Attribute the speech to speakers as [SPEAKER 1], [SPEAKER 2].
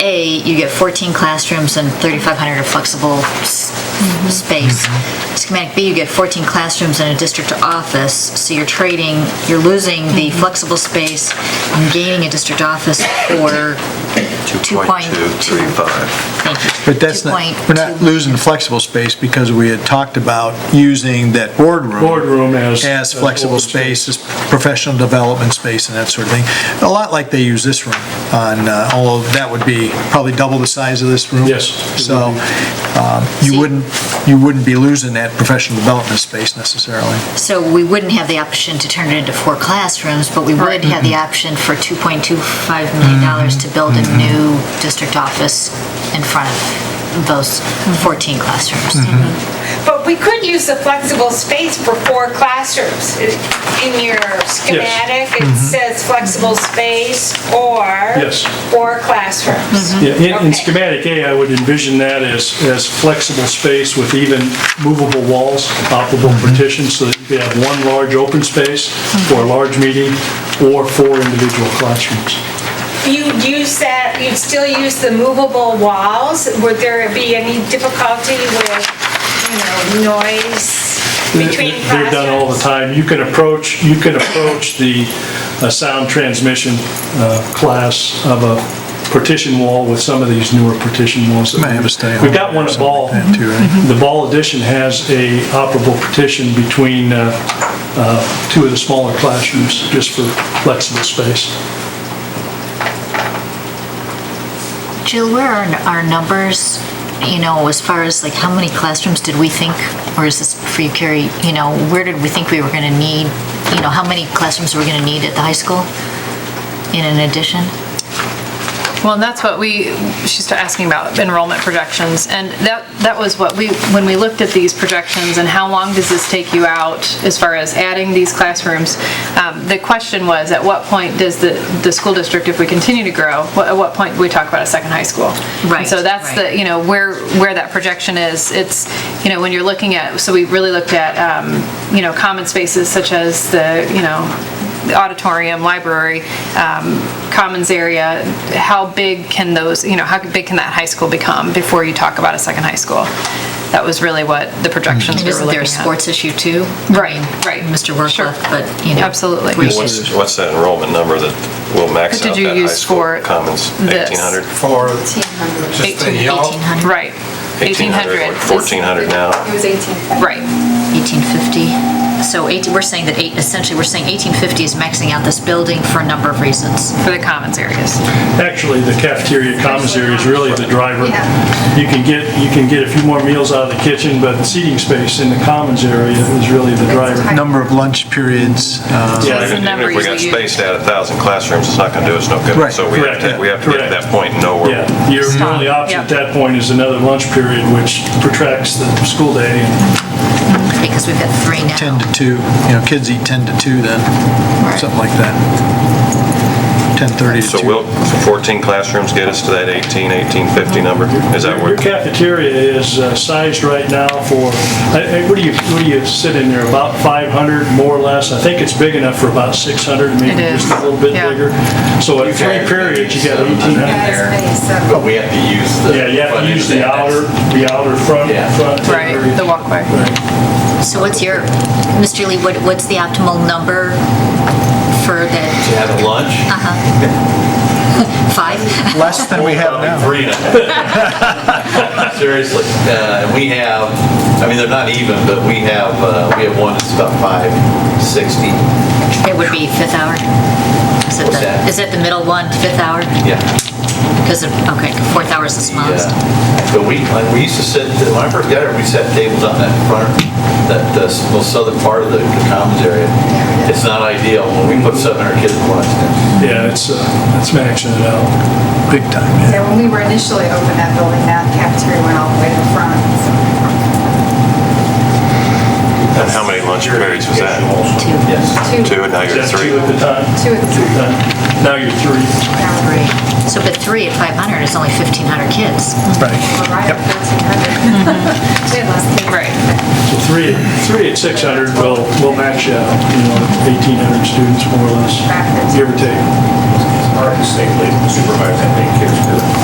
[SPEAKER 1] A, you get 14 classrooms and 3,500 of flexible s- space. Schematic B, you get 14 classrooms and a district office, so you're trading, you're losing the flexible space and gaining a district office for, Two point two.
[SPEAKER 2] 2.235.
[SPEAKER 1] thank you.
[SPEAKER 3] But that's not, we're not
[SPEAKER 1] 2.2
[SPEAKER 3] losing flexible space because we had talked about using that boardroom.
[SPEAKER 4] Boardroom as-
[SPEAKER 3] As
[SPEAKER 4] as
[SPEAKER 3] flexible
[SPEAKER 4] open
[SPEAKER 3] space,
[SPEAKER 4] space.
[SPEAKER 3] as professional development space and that sort of thing. A lot like they use this room on, uh, although that would be probably double the size of this room.
[SPEAKER 4] Yes.
[SPEAKER 3] So um,
[SPEAKER 1] See-
[SPEAKER 3] you wouldn't, you wouldn't be losing that professional development space necessarily.
[SPEAKER 1] So we wouldn't have the option to turn it into four classrooms, but we would have the option for $2.25 million dollars to build a new district office in front of those 14 classrooms.
[SPEAKER 5] But we could use the flexible space for four classrooms. In your schematic, it says flexible space or
[SPEAKER 4] Mm-hmm. Yes. Mm-hmm.
[SPEAKER 5] four classrooms.
[SPEAKER 4] Yeah, in- in
[SPEAKER 5] Okay.
[SPEAKER 4] schematic A, I would envision that as, as flexible space with even movable walls, operable
[SPEAKER 3] Mm-hmm.
[SPEAKER 4] partitions, so that you could have one large open space for a large meeting or four individual classrooms.
[SPEAKER 5] You'd use that, you'd still use the movable walls? Would there be any difficulty with, you know, noise between classrooms?
[SPEAKER 4] They're done all the time. You can approach, you can approach the uh, sound transmission uh, class of a partition wall with some of these newer partition walls. that
[SPEAKER 3] Might
[SPEAKER 4] we
[SPEAKER 3] have a
[SPEAKER 4] use.
[SPEAKER 3] stay
[SPEAKER 4] We've
[SPEAKER 3] home or
[SPEAKER 4] got one at
[SPEAKER 3] something
[SPEAKER 4] Ball. Mm-hmm.
[SPEAKER 3] like that too, right?
[SPEAKER 4] The Ball addition has a operable partition between uh, uh, two of the smaller classrooms, just for flexible space.
[SPEAKER 1] Jill, where are n- our numbers, you know, as far as like how many classrooms did we think, or is this for you, Carrie, you know, where did we think we were going to need, you know, how many classrooms we're going to need at the high school in an addition?
[SPEAKER 6] Well, and that's what we, she's asking about enrollment projections, and that, that was what we, when we looked at these projections and how long does this take you out as far as adding these classrooms, um, the question was, at what point does the, the school district, if we continue to grow, wha- at what point do we talk about a second high school? And
[SPEAKER 1] Right,
[SPEAKER 6] So that's
[SPEAKER 1] right.
[SPEAKER 6] the, you know, where, where that projection is, it's, you know, when you're looking at, so we really looked at, um, you know, common spaces such as the, you know, the auditorium, library, um, commons area, how big can those, you know, how big can that high school become before you talk about a second high school? That was really what the projections
[SPEAKER 1] And
[SPEAKER 6] we were
[SPEAKER 1] isn't
[SPEAKER 6] looking
[SPEAKER 1] there a
[SPEAKER 6] at.
[SPEAKER 1] sports issue too?
[SPEAKER 6] Right,
[SPEAKER 1] I
[SPEAKER 6] right.
[SPEAKER 1] mean, Mr.
[SPEAKER 6] Sure.
[SPEAKER 1] Workliff, but, you know.
[SPEAKER 6] Absolutely.
[SPEAKER 1] we
[SPEAKER 6] What-
[SPEAKER 1] should-
[SPEAKER 2] What's what's that enrollment number that will max
[SPEAKER 6] What did
[SPEAKER 2] out
[SPEAKER 6] you
[SPEAKER 2] that high
[SPEAKER 6] use
[SPEAKER 2] school
[SPEAKER 6] for
[SPEAKER 2] commons?
[SPEAKER 6] this?
[SPEAKER 2] 1,800?
[SPEAKER 7] for just the yellow.
[SPEAKER 1] 1800,
[SPEAKER 6] Right.
[SPEAKER 2] 1,800, 1,400 now?
[SPEAKER 8] It was 18.
[SPEAKER 6] Right,
[SPEAKER 1] 1850. So eight, we're saying that eight, essentially, we're saying 1850 is maxing out this building for a number of reasons.
[SPEAKER 6] for the commons areas.
[SPEAKER 4] Actually, the cafeteria commons area is really the driver. You can get, you can get a few more meals out of the kitchen, but seating space in the commons area is really the driver.
[SPEAKER 3] Number of lunch periods, uh,
[SPEAKER 4] Yeah.
[SPEAKER 6] That's the
[SPEAKER 2] Even
[SPEAKER 6] number
[SPEAKER 2] if we got
[SPEAKER 6] you-
[SPEAKER 2] spaced out a 1,000 classrooms, it's not going to do us no good.
[SPEAKER 3] Right.
[SPEAKER 2] So we have to,
[SPEAKER 4] Correct.
[SPEAKER 2] we have to get to that point and know where,
[SPEAKER 4] Yeah, your
[SPEAKER 6] Stop.
[SPEAKER 4] only option
[SPEAKER 6] Yep.
[SPEAKER 4] at that point is another lunch period, which protracts the school day. and
[SPEAKER 1] Because we've got three now.
[SPEAKER 3] 10 to 2, you know, kids eat 10 to 2 then, something like that. 10:30 to 2.
[SPEAKER 2] so will 14 classrooms get us to that 18, 1850 number? Is that where?
[SPEAKER 4] Your cafeteria is uh, sized right now for, I- I- what do you, what do you sit in there, about 500, more or less? I think it's big enough for about 600, maybe
[SPEAKER 6] It is.
[SPEAKER 4] just a little bit
[SPEAKER 6] Yeah.
[SPEAKER 4] bigger. So at three periods, you got 1,800.
[SPEAKER 7] But we have to use the.
[SPEAKER 4] Yeah, you have to use the outer, the outer front,
[SPEAKER 7] Yeah.
[SPEAKER 4] front.
[SPEAKER 6] Right,
[SPEAKER 4] area.
[SPEAKER 6] the walkway.
[SPEAKER 1] So what's your, Mr. Lee, what, what's the optimal number for
[SPEAKER 7] To
[SPEAKER 1] the,
[SPEAKER 7] have lunch.
[SPEAKER 1] uh-huh? Five?
[SPEAKER 3] Less than we have
[SPEAKER 7] Probably
[SPEAKER 3] now.
[SPEAKER 7] three and a half. Seriously, uh, we have, I mean, they're not even, but we have, uh, we have one that's about 560.
[SPEAKER 1] It would be fifth hour? Is it
[SPEAKER 7] What's
[SPEAKER 1] the,
[SPEAKER 7] that?
[SPEAKER 1] is it the middle one, fifth hour?
[SPEAKER 7] Yeah.
[SPEAKER 1] Because, of- okay, fourth hour is the smallest.
[SPEAKER 7] Yeah. But we, like, we used to sit, when I first got here, we sat tables out in that front, that uh, most southern part of the the commons area. It's not ideal when we put 700 kids in one tent.
[SPEAKER 4] Yeah, it's, uh, it's maxing it out.
[SPEAKER 3] Big time, yeah.
[SPEAKER 8] Yeah, when we were initially open that building, that cafeteria went all the way to the front.
[SPEAKER 2] And how many lunch periods was that?
[SPEAKER 1] Two.
[SPEAKER 7] Yes.
[SPEAKER 8] so
[SPEAKER 2] Two, and now
[SPEAKER 4] Is
[SPEAKER 2] you're at
[SPEAKER 4] that
[SPEAKER 2] three?
[SPEAKER 4] two at the time?
[SPEAKER 8] Two at the
[SPEAKER 4] Two
[SPEAKER 8] time.
[SPEAKER 4] time. Now you're three.
[SPEAKER 1] Three. So, but three at 500 is only 1,500 kids.
[SPEAKER 3] Right.
[SPEAKER 8] We're right at 1,300. We had less kids.
[SPEAKER 6] Right.
[SPEAKER 4] So three, three at 600 will, will max you out, you know, 1,800 students more or less, give or take.
[SPEAKER 9] Our state supervisor, I think, kids do.